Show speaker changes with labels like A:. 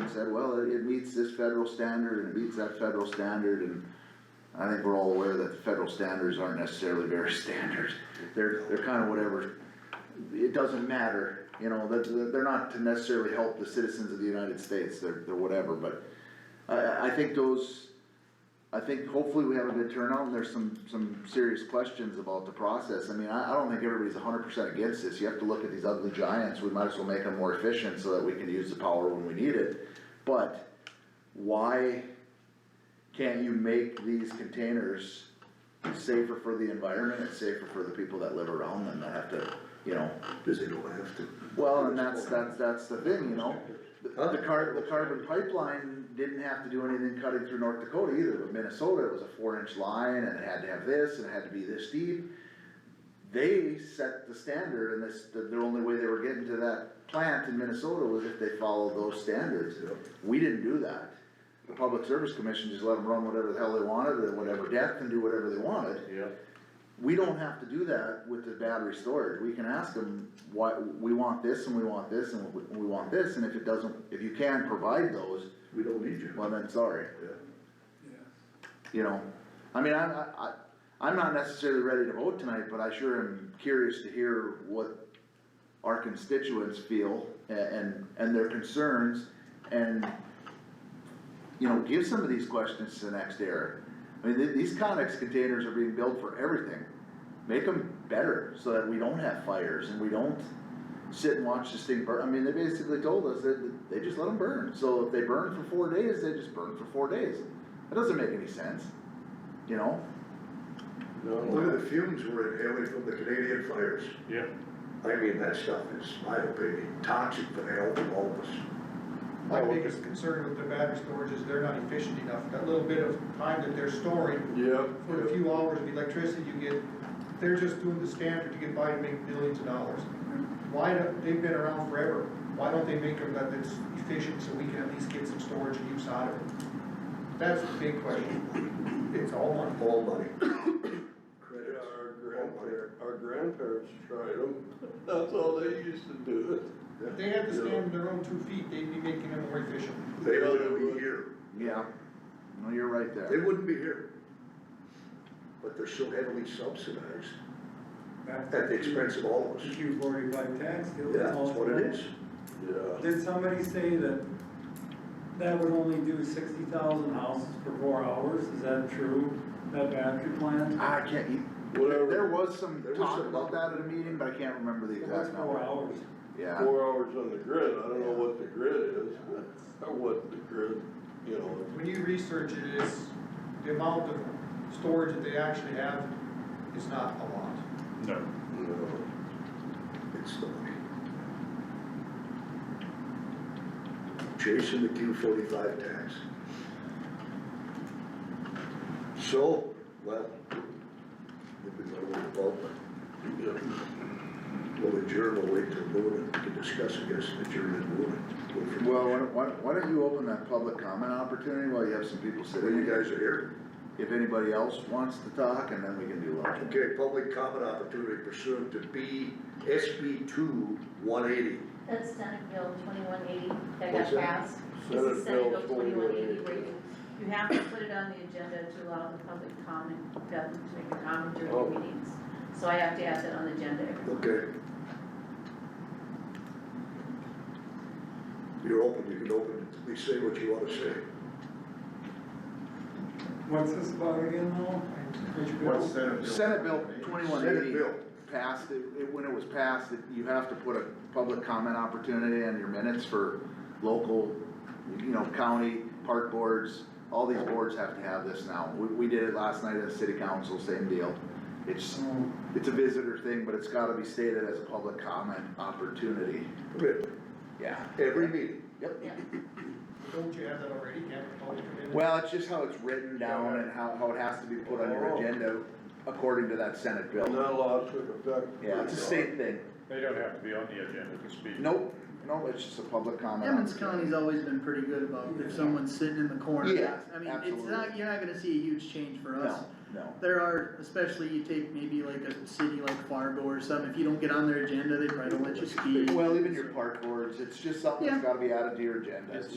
A: and said, well, it it meets this federal standard and it meets that federal standard and I think we're all aware that the federal standards aren't necessarily very standard. They're, they're kind of whatever. It doesn't matter, you know, that, that they're not to necessarily help the citizens of the United States, they're, they're whatever, but I, I, I think those, I think hopefully we have a good turnout and there's some, some serious questions about the process. I mean, I, I don't think everybody's hundred percent against this. You have to look at these ugly giants. We might as well make them more efficient so that we can use the power when we need it. But why can't you make these containers safer for the environment and safer for the people that live around them that have to, you know?
B: Cause they don't have to.
A: Well, and that's, that's, that's the thing, you know? The
B: Huh?
A: the car, the carbon pipeline didn't have to do anything cutting through North Dakota either, but Minnesota, it was a four inch line and it had to have this and it had to be this deep. They set the standard and this, the, the only way they were getting to that plant in Minnesota was if they followed those standards.
B: Yep.
A: We didn't do that. The Public Service Commission just let them run whatever the hell they wanted at whatever depth and do whatever they wanted we don't have to do that with the battery storage, we can ask them, why, we want this and we want this and we, we want this, and if it doesn't, if you can provide those,
B: We don't need you.
A: well then, sorry,
B: Yeah.
A: you know? I mean, I, I, I, I'm not necessarily ready to vote tonight, but I sure am curious to hear what our constituents feel a- and, and their concerns, and, you know, give some of these questions to the next era. I mean, th- these Conex containers are being built for everything. Make them better so that we don't have fires and we don't sit and watch this thing burn. I mean, they basically told us that they just let them burn. So if they burn for four days, they just burn for four days. That doesn't make any sense, you know?
B: Look at the fumes we're inhaling from the Canadian fires.
C: Yeah.
B: I mean, that stuff is, in my opinion, toxic for the health of all of us.
D: My biggest concern with the battery storage is they're not efficient enough, that little bit of time that they're storing,
E: Yeah.
D: for a few hours of electricity you get, they're just doing the standard to get by and make millions of dollars. Why, don't- they've been around forever, why don't they make them that it's efficient so we can at least get some storage and use out of it? That's the big question, it's all money.
B: All money.
E: Yeah,
B: Credits.
E: our
B: all money.
E: grandparents, our grandparents tried them, that's all they used to do it.
D: If they had to stand on their own two feet, they'd be making them more efficient.
B: They wouldn't be here.
A: Yeah. No, you're right
B: They
A: there.
B: wouldn't be here. But they're so heavily subsidized at the expense of all of us.
F: Q forty-five tax deal.
B: Yeah, that's what it is.
E: Yeah,
F: Did somebody say that that would only do sixty thousand houses for four hours? Is that true? That battery plant?
A: Ah, I can't, you- there there
E: whatever,
A: was some
B: There was
A: talk
B: some-
A: about that at a meeting, but I can't remember the
F: That's
A: exact
F: four
A: number.
F: hours.
A: Yeah.
E: four hours on the grid, I don't know what the grid is, or what the grid, you know,
D: When you research it, it's, the amount of storage that they actually have is not a lot.
C: No.
E: you know.
B: It's the money. Chasing the Q forty-five tax. So, well, if we got a little involvement, we'll adjourn, we'll wait till noon and can discuss, I guess, adjourn and noon.
A: Well, why don't- why, don't- why don't you open that public comment opportunity while you have some people
B: When
A: sitting
B: you
A: here?
B: guys are here,
A: If anybody else wants to talk, and then we can do lunch.
B: okay, public comment opportunity pursuant to B, SB two, one eighty.
G: That's Senate Bill twenty-one eighty that
B: What's
G: got
B: that?
G: passed. This
E: Senate
G: is
E: Bill
G: Senate Bill twenty-one eighty,
E: 2180.
G: where you, you have to put it on the agenda to allow the public comment, them to make a comment during
E: Oh.
G: the meetings. So I have to add that on the agenda every
B: Okay. You're open, you can open, it. please say what you wanna say.
F: What's this about again though? Which bill?
D: What's that?
A: Senate Bill twenty-one eighty
B: Senate bill.
A: passed, it, it- when it was passed, it- you have to put a public comment opportunity on your minutes for local, you know, county, park boards, all these boards have to have this now. We, we did it last night at the city council, same deal. It's,
F: Oh,
A: it's a visitor thing, but it's gotta be stated as a public comment opportunity.
B: Good.
A: Yeah.
B: Every meeting.
A: Yep.
D: Don't you have that already, can't the public come in?
A: Well, it's just how it's written down and how, how it has to be put on your
E: Oh.
A: agenda according to that Senate
E: And
A: bill.
E: that law took effect.
A: Yeah, it's a state thing.
C: They don't have to be on the agenda to speak.
A: Nope, no, it's just a public comment.
H: Emmons County's always been pretty good about if someone's sitting in the corner.
A: Yeah,
H: I mean, it's
A: absolutely.
H: not, you're not gonna see a huge change for us.
A: No, no.
H: There are, especially you take maybe like a city like Fargo or something, if you don't get on their agenda, they probably don't let you speak.
A: Well, even your park boards, it's just something that's gotta be added to your agenda. It's